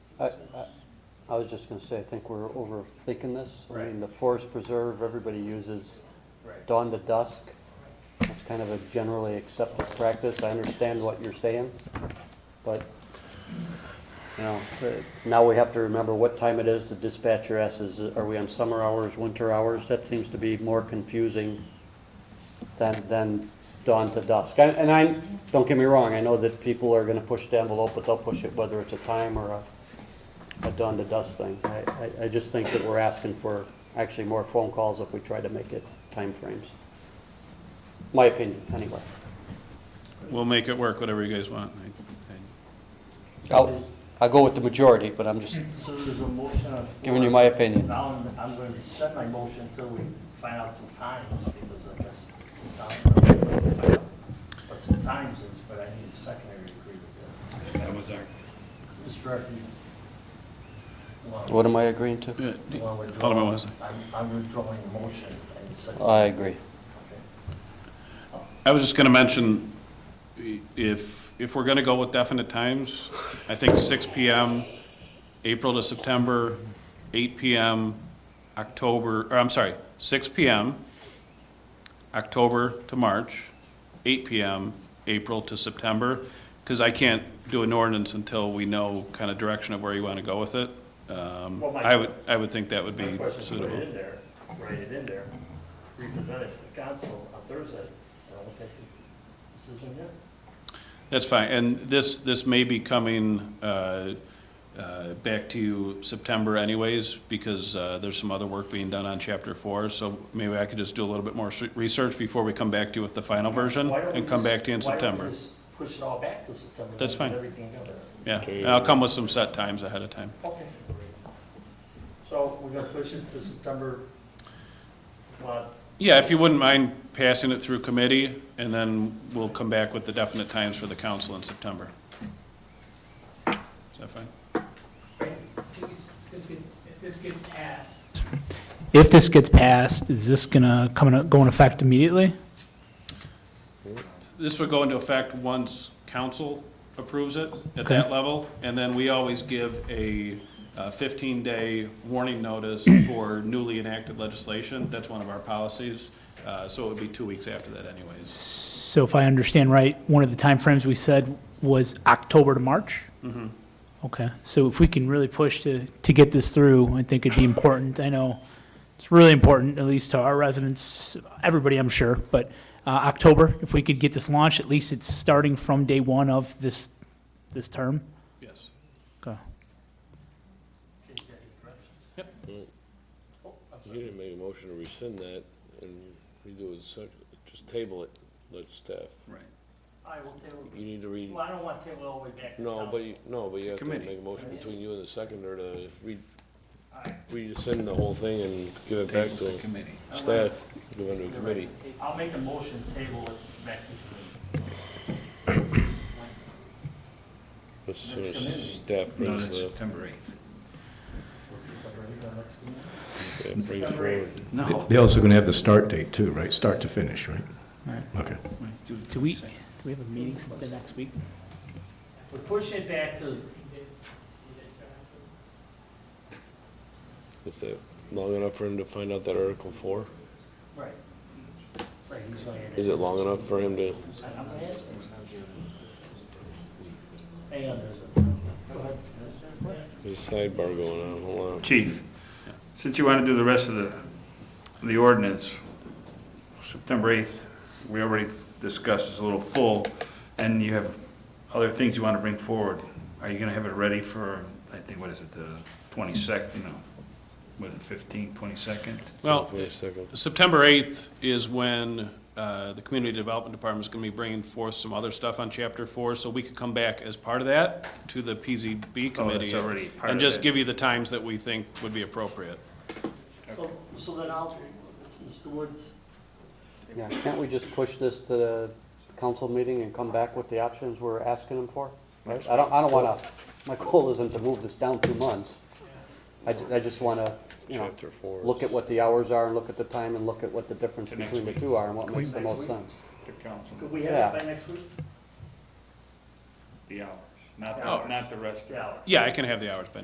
I, I- I was just gonna say, I think we're overthinking this. I mean, Right. the forest preserve, everybody uses Right. dawn to dusk. That's kind of a generally accepted practice. I understand what you're saying, but, you know, uh, now we have to remember what time it is. The dispatcher asks, is- are we on summer hours, winter hours? That seems to be more confusing than, than dawn to dusk. And and I, don't get me wrong, I know that people are gonna push the envelope, but they'll push it whether it's a time or a a dawn to dusk thing. I, I, I just think that we're asking for actually more phone calls if we try to make it timeframes. My opinion, anyway. We'll make it work, whatever you guys want. I- I- I'll, I'll go with the majority, but I'm just So there's a motion on the floor. giving you my opinion. Now, I'm- I'm going to rescind my motion until we find out some times, because I guess some times, but some times is, but I need a secondary agreement That was our, there. Mr. Director, you- you want- What am I agreeing to? yeah, you d- want to withdraw? Alderman Wesley. I'm- I'm withdrawing the motion. I need a second. I agree. Okay. I was just going to mention, i- if, if we're going to go with definite times, I think 6 PM, April to September, 8 PM, October, or I'm sorry, 6 PM, October to March, 8 PM, April to September, because I can't do an ordinance until we know kind of direction of where you want to go with it. Um, Well, my- I would, I would think that would be My question is, put it suitable. in there, write it in there, represent it to the council on Thursday, and I will take the decision then. That's fine, and this, this may be coming uh, uh, back to you September anyways, because uh, there's some other work being done on chapter four, so maybe I could just do a little bit more s- research before we come back to you with the final version, Why don't we and come just- back to you in Why don't September. we just push it all back to September? That's and fine. Get everything together. Yeah, and I'll come with some set times ahead of time. Okay. So we're gonna push it to September, what, Yeah, if you wouldn't mind passing it through committee, and then we'll come back with the definite times for the council in September. Is that fine? This gets- If this gets passed. If this gets passed, is this gonna come in, go in effect immediately? This would go into effect once council approves it at Okay. that level, and then we always give a uh, fifteen-day warning notice for newly enacted legislation. That's one of our policies, uh, so it would be two weeks after that anyways. So if I understand right, one of the timeframes we said was October to March? Mhm. Okay, so if we can really push to, to get this through, I think it'd be important. I know it's really important, at least to our residents, everybody, I'm sure, but uh, October, if we could get this launched, at least it's starting from day one of this, this term. Yes. Okay. can you get your directions? Oh, You didn't make a motion to rescind that and redo it, so uh, just table it, let staff. Right. I will table, You need to read, well, I don't want to table it all the way back to no, council. but, you- no, but you have to Committee. make a motion between you and the seconder to re, All right. rescind the whole thing and give it back to committee. staff, give it to the committee. I'll make a motion to table it back to As soon as Next committee. staff brings the, September eighth. September, you know, next meeting. yeah, brings September eighth. forward. No. They're also going to have the start date too, right? Start to finish, right? Right. Okay. Do we, do we have a meeting the next week? We're pushing it back to, Is that long enough for him to find out that Article four? right. Right, he's gonna add Is it long enough for him to, I'm gonna ask him. Hang on, there's a, go ahead. there's a sidebar going on, hold on. Chief, since you want to do the rest of the, the ordinance, September 8th, we already discussed, is a little full, and you have other things you want to bring forward. Are you going to have it ready for, I think, what is it, the 22nd, you know, what, 15th, 22nd? Well, Wait a second. September 8th is when uh, the Community Development Department is going to be bringing forth some other stuff on Chapter 4, so we could come back as part of that to the PZB Oh, committee. that's already part And of just it. give you the times that we think would be appropriate. So, so then I'll, Mr. Woods, Yeah, can't we just push this to the council meeting and come back with the options we're asking them for? Right? I don't, I don't wanna, my goal isn't to move this down two months. I, ju- I just wanna, you know, Chapter four. look at what the hours are and look at the time and look at what the difference To next between the week. two are and what Can we- makes the Next most week? sense. The council, could we have it by next week? the hours, not, Oh. the- not the rest of it. Yeah. Yeah, I can have the hours by